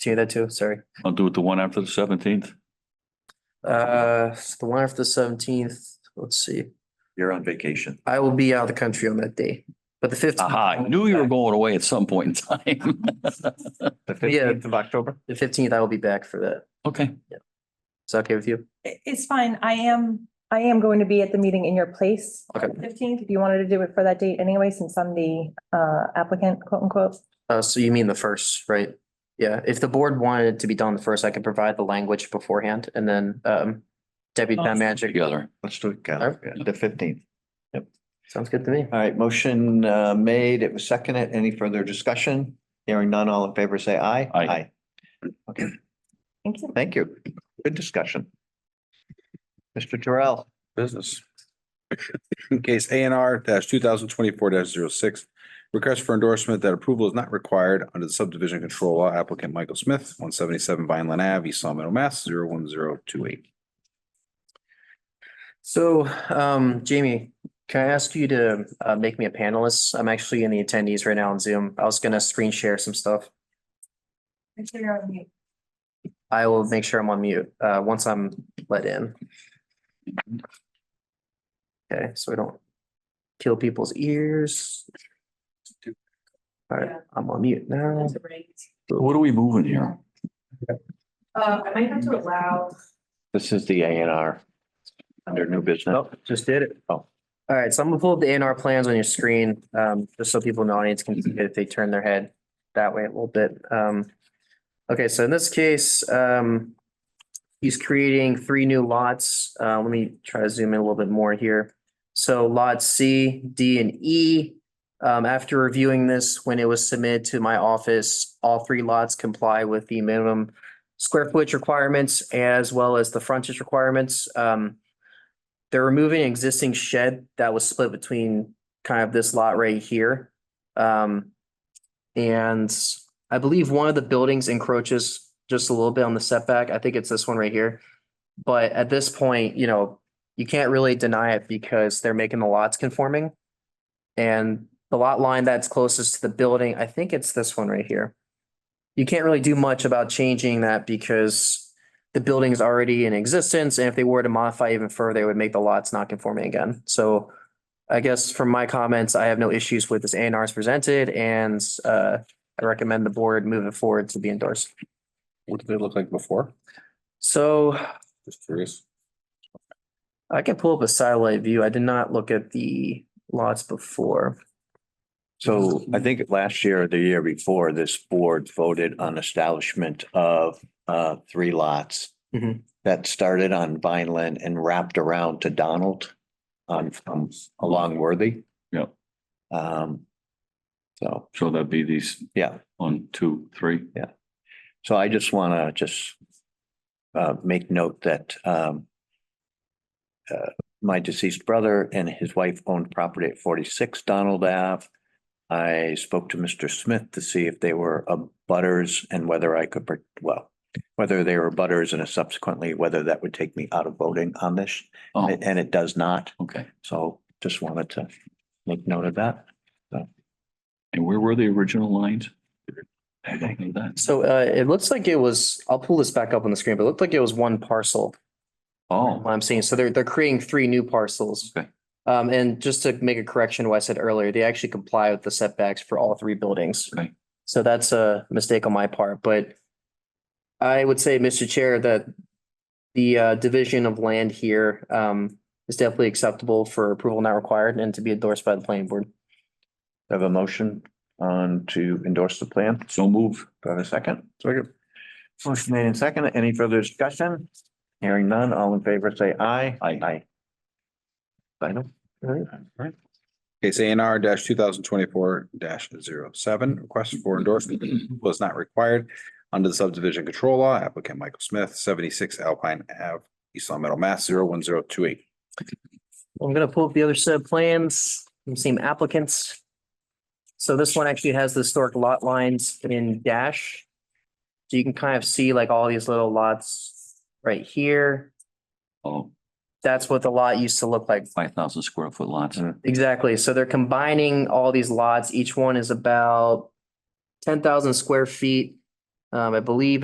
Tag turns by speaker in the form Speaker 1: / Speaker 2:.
Speaker 1: See that too, sorry.
Speaker 2: I'll do it the one after the seventeenth.
Speaker 1: Uh, so the one after the seventeenth, let's see.
Speaker 2: You're on vacation.
Speaker 1: I will be out of the country on that day, but the fifteenth.
Speaker 2: Aha, I knew you were going away at some point in time.
Speaker 3: The
Speaker 1: Yeah.
Speaker 3: fifteenth of October?
Speaker 1: The fifteenth, I will be back for that.
Speaker 2: Okay,
Speaker 1: Is that okay with you?
Speaker 4: I- It's fine. I am, I am going to be at the meeting in your place.
Speaker 1: Okay.
Speaker 4: Fifteenth, if you wanted to do it for that date anyway, since I'm the uh applicant, quote unquote.
Speaker 1: Uh, so you mean the first, right? Yeah, if the board wanted it to be done the first, I could provide the language beforehand and then, um, deputy town manager.
Speaker 2: together.
Speaker 3: Let's do it, Cal.
Speaker 1: Alright.
Speaker 3: Yeah, The fifteenth.
Speaker 1: Sounds good to me.
Speaker 3: All right, motion uh made. It was seconded. Any further discussion? Hearing none, all in favor, say aye.
Speaker 2: Aye.
Speaker 3: Okay,
Speaker 4: Thank you.
Speaker 3: thank you. Good discussion. Mr. Terrell,
Speaker 5: business. Case A and R two thousand twenty-four 6 Request for endorsement that approval is not required under the subdivision control law applicant Michael Smith, one seventy-seven Vineland Ave, East Long Meadow, Mass, zero one zero two eight.
Speaker 1: So, um, Jamie, can I ask you to, uh, make me a panelist? I'm actually in the attendees right now on Zoom. I was gonna screen share some stuff.
Speaker 4: Make sure you're on mute.
Speaker 1: I will make sure I'm on mute, uh, once I'm let in. Okay, so we don't kill people's ears. All right,
Speaker 4: Yeah.
Speaker 1: I'm on mute now.
Speaker 4: That's great.
Speaker 2: What are we moving here?
Speaker 4: Uh, I might have to allow.
Speaker 3: this is the A and R under new business.
Speaker 1: Nope, just did it.
Speaker 3: Oh.
Speaker 1: All right, so I'm gonna pull up the A and R plans on your screen, um, just so people in the audience can see it if they turn their head that way a little bit. Um, okay, so in this case, um, he's creating three new lots. Uh, let me try to zoom in a little bit more here. So lot C, D, and E. Um, after reviewing this, when it was submitted to my office, all three lots comply with the minimum square footage requirements as well as the frontage requirements. Um, they're removing an existing shed that was split between kind of this lot right here. Um, and I believe one of the buildings encroaches just a little bit on the setback. I think it's this one right here. But at this point, you know, you can't really deny it because they're making the lots conforming. And the lot line that's closest to the building, I think it's this one right here. You can't really do much about changing that because the building is already in existence, and if they were to modify even further, it would make the lots not conforming again. So I guess from my comments, I have no issues with this A and R's presented, and uh, I recommend the board move it forward to be endorsed.
Speaker 5: What did they look like before?
Speaker 1: So
Speaker 5: Just curious.
Speaker 1: I can pull up a satellite view. I did not look at the lots before.
Speaker 3: So I think last year or the year before, this board voted on establishment of uh three lots.
Speaker 1: Mhm.
Speaker 3: That started on Vineland and wrapped around to Donald on um along Worthy.
Speaker 2: Yep.
Speaker 3: Um. So,
Speaker 2: So that'd be these
Speaker 3: yeah,
Speaker 2: one, two, three.
Speaker 3: so I just wanna just uh make note that um. Uh, my deceased brother and his wife owned property at forty-six Donald Ave. I spoke to Mr. Smith to see if they were a butters and whether I could, per- well, whether they were butters and subsequently whether that would take me out of voting on this,
Speaker 2: Oh,
Speaker 3: and it does not.
Speaker 2: okay.
Speaker 3: So just wanted to make note of that.
Speaker 2: And where were the original lines? I don't know that.
Speaker 1: So uh, it looks like it was, I'll pull this back up on the screen, but it looked like it was one parcel.
Speaker 2: Oh,
Speaker 1: what I'm seeing. So they're, they're creating three new parcels.
Speaker 2: Okay.
Speaker 1: Um, and just to make a correction, to what I said earlier, they actually comply with the setbacks for all three buildings.
Speaker 2: Okay.
Speaker 1: So that's a mistake on my part, but I would say, Mr. Chair, that the, uh, division of land here, um, is definitely acceptable for approval not required and to be endorsed by the planning board.
Speaker 3: Have a motion on to endorse the plan?
Speaker 2: so move.
Speaker 3: Do I have a second? Second. Motion made and second. Any further discussion? Hearing none, all in favor, say aye.
Speaker 2: Aye.
Speaker 3: Aye. Final?
Speaker 5: Case A and R two thousand twenty-four 7 request for endorsement was not required under the subdivision control law applicant Michael Smith, seventy-six Alpine Ave, East Long Meadow, Mass, zero one zero two eight.
Speaker 1: I'm gonna pull up the other set of plans, from same applicants. So this one actually has the historic lot lines in dash. So you can kind of see like all these little lots right here.
Speaker 2: Oh,
Speaker 1: That's what the lot used to look like.
Speaker 2: five thousand square foot lots.
Speaker 3: Mm.
Speaker 1: Exactly. So they're combining all these lots. Each one is about ten thousand square feet. Um, I believe